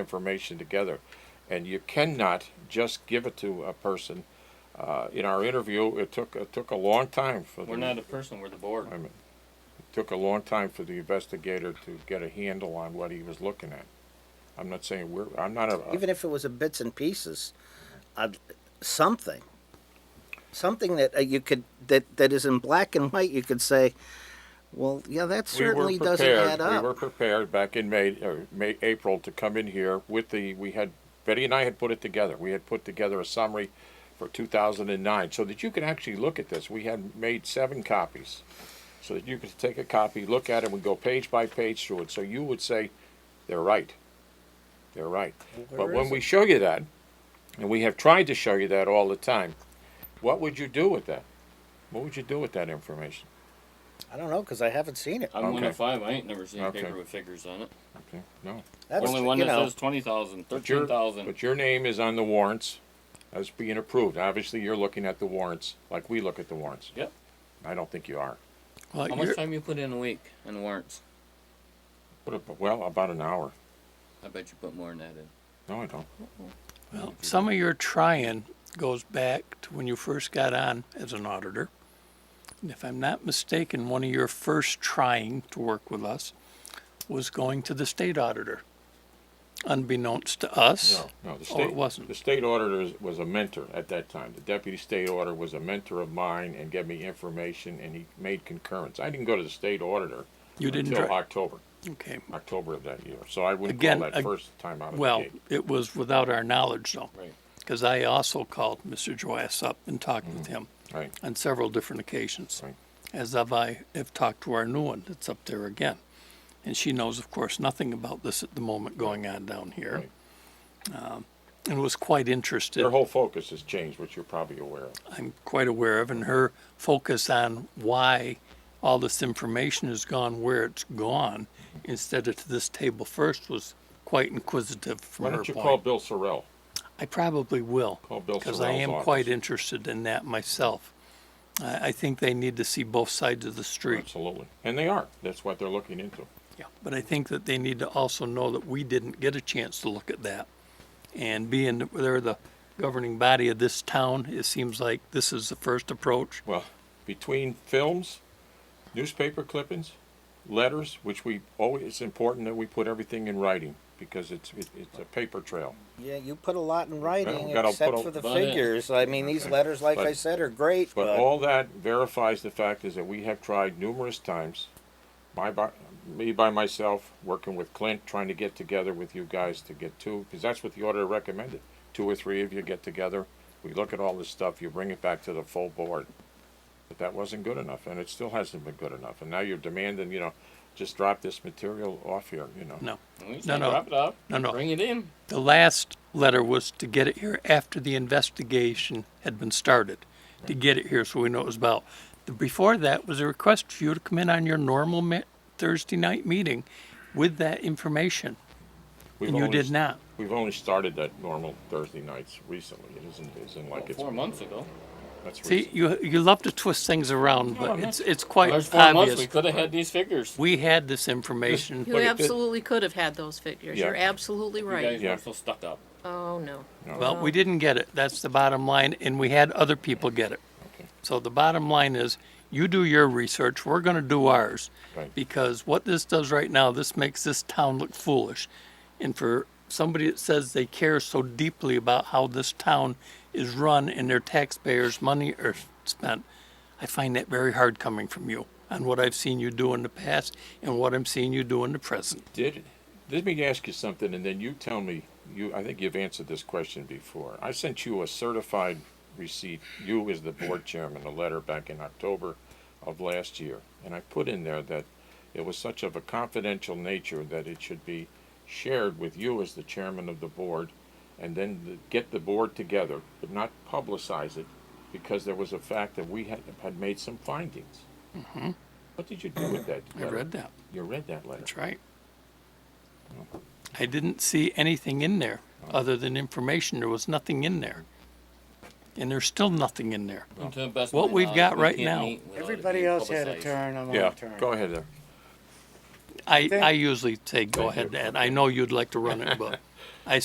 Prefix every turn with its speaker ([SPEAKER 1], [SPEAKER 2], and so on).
[SPEAKER 1] information together. And you cannot just give it to a person. Uh, in our interview, it took, it took a long time for the.
[SPEAKER 2] We're not a person, we're the board.
[SPEAKER 1] I mean, it took a long time for the investigator to get a handle on what he was looking at. I'm not saying we're, I'm not a-
[SPEAKER 3] even if it was a bits and pieces, uh, something, something that uh, you could that that is in black and white. You could say, "Well, yeah, that
[SPEAKER 1] We were
[SPEAKER 3] certainly doesn't
[SPEAKER 1] prepared-
[SPEAKER 3] add up."
[SPEAKER 1] We were prepared back in May, or May, April to come in here with the, we had, Betty and I had put it together. We had put together a summary for two thousand and nine, so that you could actually look at this. We had made seven copies. So that you could take a copy, look at it, and go page by page through it, so you would say, they're right. They're right. But when we show you that, and we have tried to show you that all the time, what would you do with that? What would you do with that information?
[SPEAKER 3] I don't know because I haven't seen it.
[SPEAKER 2] I'm one
[SPEAKER 1] Okay.
[SPEAKER 2] of five, I ain't never seen a
[SPEAKER 1] Okay.
[SPEAKER 2] paper with figures on it.
[SPEAKER 1] Okay, no.
[SPEAKER 3] That's
[SPEAKER 2] Only one
[SPEAKER 3] you
[SPEAKER 2] that
[SPEAKER 3] know,
[SPEAKER 2] says twenty thousand,
[SPEAKER 1] But your-
[SPEAKER 2] thirteen thousand.
[SPEAKER 1] But your name is on the warrants as being approved. Obviously, you're looking at the warrants like we look at the warrants.
[SPEAKER 2] Yep.
[SPEAKER 1] I don't think you are.
[SPEAKER 4] Well,
[SPEAKER 2] How
[SPEAKER 4] you're-
[SPEAKER 2] much time you put in a week on warrants?
[SPEAKER 1] What ab- Well, about an hour.
[SPEAKER 2] I bet you put more than that in.
[SPEAKER 1] No, I don't.
[SPEAKER 4] well, some of your trying goes back to when you first got on as an auditor. And if I'm not mistaken, one of your first trying to work with us was going to the state auditor, unbeknownst to us.
[SPEAKER 1] No, no. The
[SPEAKER 4] Oh,
[SPEAKER 1] state,
[SPEAKER 4] it wasn't.
[SPEAKER 1] The state auditor is- was a mentor at that time. The deputy state auditor was a mentor of mine and gave me information, and he made concurrence. I didn't go to the state auditor
[SPEAKER 4] You didn't.
[SPEAKER 1] until
[SPEAKER 4] dri-
[SPEAKER 1] October,
[SPEAKER 4] Okay.
[SPEAKER 1] October of that year. So I wouldn't
[SPEAKER 4] Again,
[SPEAKER 1] call that
[SPEAKER 4] ag-
[SPEAKER 1] first time out of
[SPEAKER 4] Well,
[SPEAKER 1] the gate.
[SPEAKER 4] it was without our knowledge though,
[SPEAKER 2] Right.
[SPEAKER 4] because I also called Mr. Joyce up and talked with
[SPEAKER 1] Mm-hmm.
[SPEAKER 4] him
[SPEAKER 1] Right.
[SPEAKER 4] on several different occasions.
[SPEAKER 1] Right.
[SPEAKER 4] As have I have talked to our new one that's up there again. And she knows, of course, nothing about this at the moment going on down here.
[SPEAKER 1] Right.
[SPEAKER 4] Um, and was quite interested.
[SPEAKER 1] Their whole focus has changed, which you're probably aware of.
[SPEAKER 4] I'm quite aware of, and her focus on why all this information has gone where it's gone instead of to this table first was quite inquisitive from
[SPEAKER 1] Why
[SPEAKER 4] her
[SPEAKER 1] don't you
[SPEAKER 4] point.
[SPEAKER 1] call Bill Sorrell?
[SPEAKER 4] I probably will.
[SPEAKER 1] Call Oh, Bill
[SPEAKER 4] Because I
[SPEAKER 1] Sorrell's
[SPEAKER 4] am
[SPEAKER 1] office.
[SPEAKER 4] quite interested in that myself. I, I think they need to see both sides of the street.
[SPEAKER 1] Absolutely. And they are. That's what they're looking into.
[SPEAKER 4] Yeah. But I think that they need to also know that we didn't get a chance to look at that. And being that they're the governing body of this town, it seems like this is the first approach.
[SPEAKER 1] Well, between films, newspaper clippings, letters, which we always, it's important that we put everything in writing because it's, it, it's a paper trail.
[SPEAKER 3] yeah, you put a lot in writing,
[SPEAKER 1] gotta
[SPEAKER 3] except
[SPEAKER 1] put a-
[SPEAKER 3] for the
[SPEAKER 2] But, yeah.
[SPEAKER 3] figures. I mean, these letters, like
[SPEAKER 1] But-
[SPEAKER 3] I said, are great, but,
[SPEAKER 1] But all that verifies the fact is that we have tried numerous times, my, by, me by myself, working with Clint, trying to get together with you guys to get two, because that's what the auditor recommended. Two or three of you get together, we look at all this stuff, you bring it back to the full board. But that wasn't good enough, and it still hasn't been good enough, and now you're demanding, you know, just drop this material off here, you know?
[SPEAKER 4] No.
[SPEAKER 2] We
[SPEAKER 4] No,
[SPEAKER 2] say
[SPEAKER 4] no.
[SPEAKER 2] drop it off,
[SPEAKER 4] No, no.
[SPEAKER 2] bring it in.
[SPEAKER 4] The last letter was to get it here after the investigation had been started, to get it here so we know what it was about. The- Before that was a request for you to come in on your normal ma- Thursday night meeting with that information,
[SPEAKER 1] We've
[SPEAKER 4] and you
[SPEAKER 1] only-
[SPEAKER 4] did not.
[SPEAKER 1] We've only started that normal Thursday nights recently, it isn't, isn't like
[SPEAKER 2] About
[SPEAKER 1] it's.
[SPEAKER 2] Four months ago.
[SPEAKER 1] that's
[SPEAKER 4] See,
[SPEAKER 1] recent.
[SPEAKER 4] you, you love to twist things around,
[SPEAKER 2] No,
[SPEAKER 4] but
[SPEAKER 2] I'm
[SPEAKER 4] it's,
[SPEAKER 2] not.
[SPEAKER 4] it's quite
[SPEAKER 2] There's four months, we
[SPEAKER 4] obvious.
[SPEAKER 2] could have had these figures.
[SPEAKER 4] We had this information.
[SPEAKER 5] You
[SPEAKER 1] Look at the-
[SPEAKER 5] absolutely could have had those figures.
[SPEAKER 1] Yeah.
[SPEAKER 5] You're absolutely
[SPEAKER 2] You guys
[SPEAKER 5] right.
[SPEAKER 1] Yeah.
[SPEAKER 2] were so stuck up.
[SPEAKER 5] Oh, no.
[SPEAKER 4] Well, we didn't get it. That's the bottom line, and we had other people get it.
[SPEAKER 1] Okay.
[SPEAKER 4] So the bottom line is, you do your research, we're gonna do ours.
[SPEAKER 1] Right.
[SPEAKER 4] Because what this does right now, this makes this town look foolish. And for somebody that says they care so deeply about how this town is run and their taxpayers' money are spent, I find that very hard coming from you on what I've seen you do in the past and what I'm seeing you do in the present.
[SPEAKER 1] Did, let me ask you something, and then you tell me, you, I think you've answered this question before. I sent you a certified receipt, you as the board chairman, a letter back in October of last year. And I put in there that it was such of a confidential nature that it should be shared with you as the chairman of the board, and then the- get the board together, but not publicize it, because there was a fact that we had, had made some findings. What did you do with that?
[SPEAKER 4] Mm-hmm. I
[SPEAKER 1] letter?
[SPEAKER 4] read that.
[SPEAKER 1] You read that letter?
[SPEAKER 4] That's right. I didn't see anything in there other than information. There was nothing in there. And there's still nothing in there.
[SPEAKER 2] To the best of
[SPEAKER 4] What
[SPEAKER 2] my
[SPEAKER 4] we've
[SPEAKER 2] knowledge,
[SPEAKER 4] got
[SPEAKER 2] we
[SPEAKER 4] right
[SPEAKER 2] uh, can't
[SPEAKER 4] now-
[SPEAKER 2] meet without it
[SPEAKER 6] Everybody
[SPEAKER 2] being
[SPEAKER 6] else had a
[SPEAKER 2] publicized.
[SPEAKER 6] turn, I'm on
[SPEAKER 1] Yeah,
[SPEAKER 6] a turn.
[SPEAKER 1] go ahead there.
[SPEAKER 4] I,
[SPEAKER 6] Thank-
[SPEAKER 4] I usually say, go
[SPEAKER 1] Thank
[SPEAKER 4] ahead, Ed. I know you'd like to run it, but